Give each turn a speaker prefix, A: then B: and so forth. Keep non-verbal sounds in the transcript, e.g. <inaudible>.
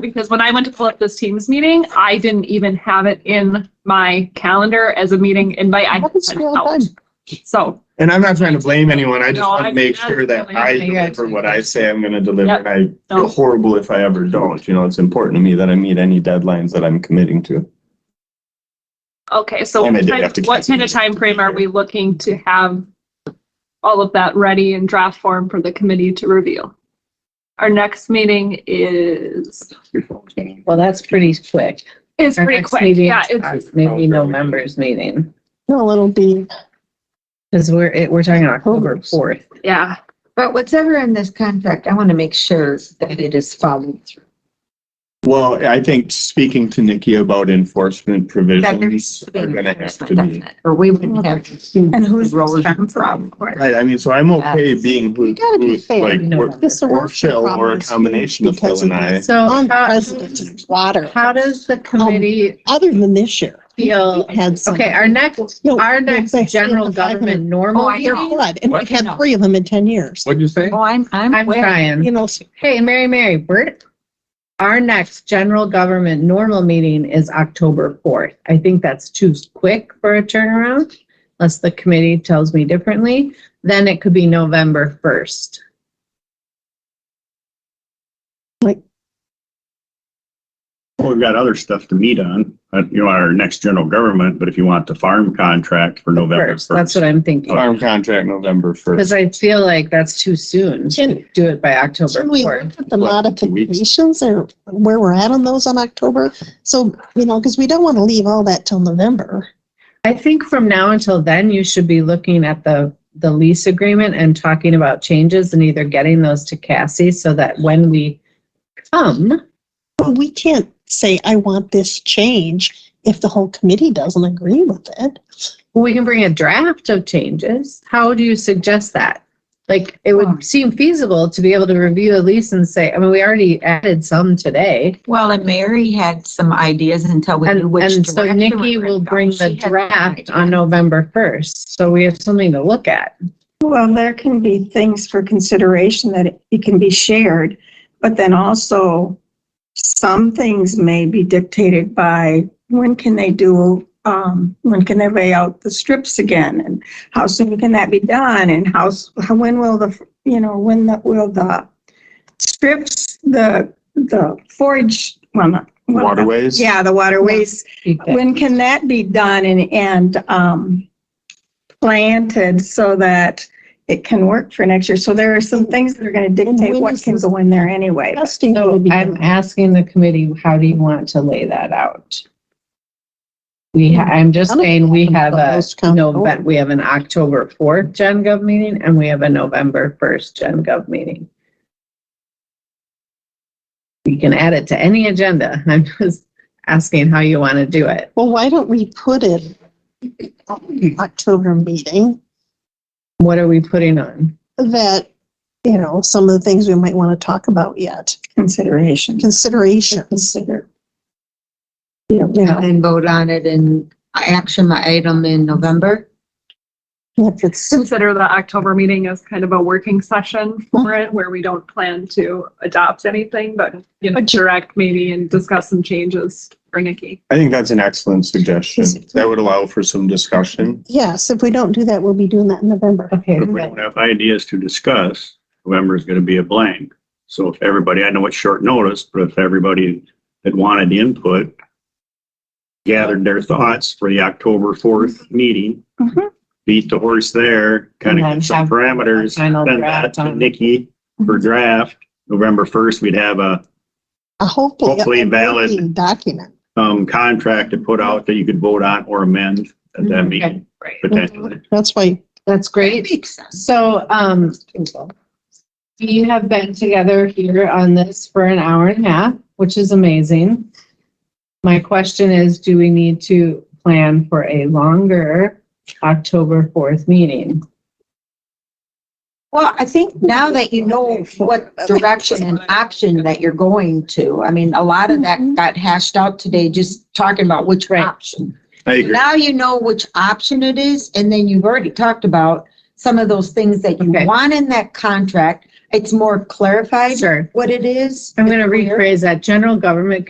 A: because when I went to pull up this Teams meeting, I didn't even have it in my calendar as a meeting invite. I had
B: Happens
A: it
B: to me all
A: out.
B: the time.
A: So,
C: And I'm not trying to blame anyone. I just
A: No,
C: want
A: I-
C: to make
A: that's
C: sure that
A: really
C: I
A: okay,
B: guys.
C: deliver what I say I'm gonna deliver.
A: Yep.
C: And I feel
A: no,
C: horrible if I ever don't, you know, it's important to me that I meet any deadlines that I'm committing to.
A: okay, so
C: And I
A: what
C: did
A: kind-
C: have to
A: what
C: cancel
A: kind of
C: it.
A: time frame are we looking to have all of that ready in draft form for the committee to review? Our next meeting is,
D: Well, that's pretty quick.
A: is
D: Our
A: pretty
D: next
A: quick.
D: meeting
A: Yeah, it's
E: uh,
D: is Maybe November's meeting,
B: No, it'll be,
D: because we're, it- we're talking October
B: October's.
D: fourth.
A: Yeah,
F: But whatever in this contract, I want to make sure that it is followed through.
C: Well, I think speaking to Nikki about enforcement provisions are gonna have to be.
F: Or we wouldn't have.
E: And who's
F: Rollers
E: from?
F: problem.
C: Right, I mean, so I'm okay being who,
B: You gotta be
C: who's
B: fair,
C: like,
D: you know
C: we're-
D: that.
B: this
C: or
B: is
C: Phil, or a combination of Phil and I.
E: So how,
B: unprecedented water,
E: how does the committee
B: other than this year.
E: feel?
B: We had some-
E: Okay, our next,
B: No,
E: our
B: no,
E: next
B: they had
E: general
B: the five
E: government
B: and-
E: normal
F: Oh, I know.
E: meeting?
B: Flood, and we
F: What?
B: had three of them in ten years.
G: What'd you say?
F: Oh, I'm, I'm.
E: I'm
F: aware.
E: trying.
B: You know,
E: Hey, Mary, Mary, we're, our next general government normal meeting is October fourth. I think that's too quick for a turnaround, unless the committee tells me differently. Then it could be November first.
H: Well, we've got other stuff to meet on, uh, you know, our next general government, but if you want the farm contract for November
E: First,
H: first.
E: that's what I'm thinking.
C: Farm contract November
E: Because
C: first.
E: I feel like that's too soon.
B: Can-
E: Do it by October
B: Can we
E: fourth.
B: look at the
C: What, two weeks?
B: modifications or where we're at on those on October? So, you know, because we don't want to leave all that till November.
E: I think from now until then, you should be looking at the, the lease agreement and talking about changes and either getting those to Cassie so that when we come,
B: But we can't say, I want this change if the whole committee doesn't agree with it.
E: we can bring a draft of changes. How do you suggest that? Like, it would seem feasible to be able to review a lease and say, I mean, we already added some today.
F: Well, and Mary had some ideas until we knew
E: And,
F: which.
E: and so
F: direction we
E: Nikki
F: were
E: will
F: going.
E: bring
F: She
E: the
F: had some
E: draft
F: ideas.
E: on November 1st. So we have something to look at. Well,
I: there can be things for consideration that it- it can be shared, but then also some things may be dictated by when can they do, um, when can they lay out the strips again? And how soon can that be done? And how, s- how- when will the, you know, when the, will the strips, the, the forage, well, not. well, the-
C: Waterways?
I: Yeah, the waterways when can that be done and, and, um, planted so that it can work for next year? So there are some things that are gonna dictate what can go in there anyway.
B: Testing
E: So
B: would be
E: I'm
B: done.
E: asking the committee, how do you want to lay that out? We, ha- I'm just
B: I don't
E: saying, we have a,
B: Most county
E: Nove-
B: board.
E: we have an October fourth Gen Gov meeting and we have a November first Gen Gov meeting. You can add it to any agenda. <laughs> I'm just asking how you want to do it.
B: Well, why don't we put it October meeting
E: What are we putting on?
B: that, you know, some of the things we might want to talk about yet,
I: Consideration.
B: considerations.
I: Consider.
B: Yeah.
F: And then vote on it in action item in November.
B: If it's,
A: consider the October meeting as kind of a working session for it, where we don't plan to adopt anything, but, you know, direct maybe and discuss some changes for Nikki.
C: I think that's an excellent suggestion. That would allow for some discussion.
B: yes, if we don't do that, we'll be doing that in November.
E: Okay.
H: If we don't have ideas to discuss, November is gonna be a blank. So if everybody, I know it's short notice, but if everybody that wanted input gathered their thoughts for the October fourth meeting,
I: Mhm.
H: beat the horse there, kind
E: And
H: of
E: then
H: get some
E: Mm-hmm. have
H: parameters,
E: a final
H: send
E: draft
H: that to
E: on- Mm-hmm.
H: Nikki for draft. November first, we'd have a
B: A Hopefully.
H: Hopefully
B: a
H: valid.
B: working Document.
H: um, contract to put out that you could vote on or amend at
E: Mm-hmm.
H: that meeting,
A: Right.
H: potentially.
B: That's why
E: That's great.
F: Makes sense.
E: So, um, you have been together here on this for an hour and a half, which is amazing. My question is, do we need to plan for a longer October fourth meeting?
F: Well, I think now that you know what direction and option that you're going to, I mean, a lot of that got hashed out today, just talking about which
E: Right.
F: option.
C: I agree.
F: Now you know which option it is, and then you've already talked about some of those things that you
E: Okay.
F: want in that contract it's more clarified
E: Sure.
F: what it is.
E: I'm going to
F: It's clear.
E: rephrase that. General Government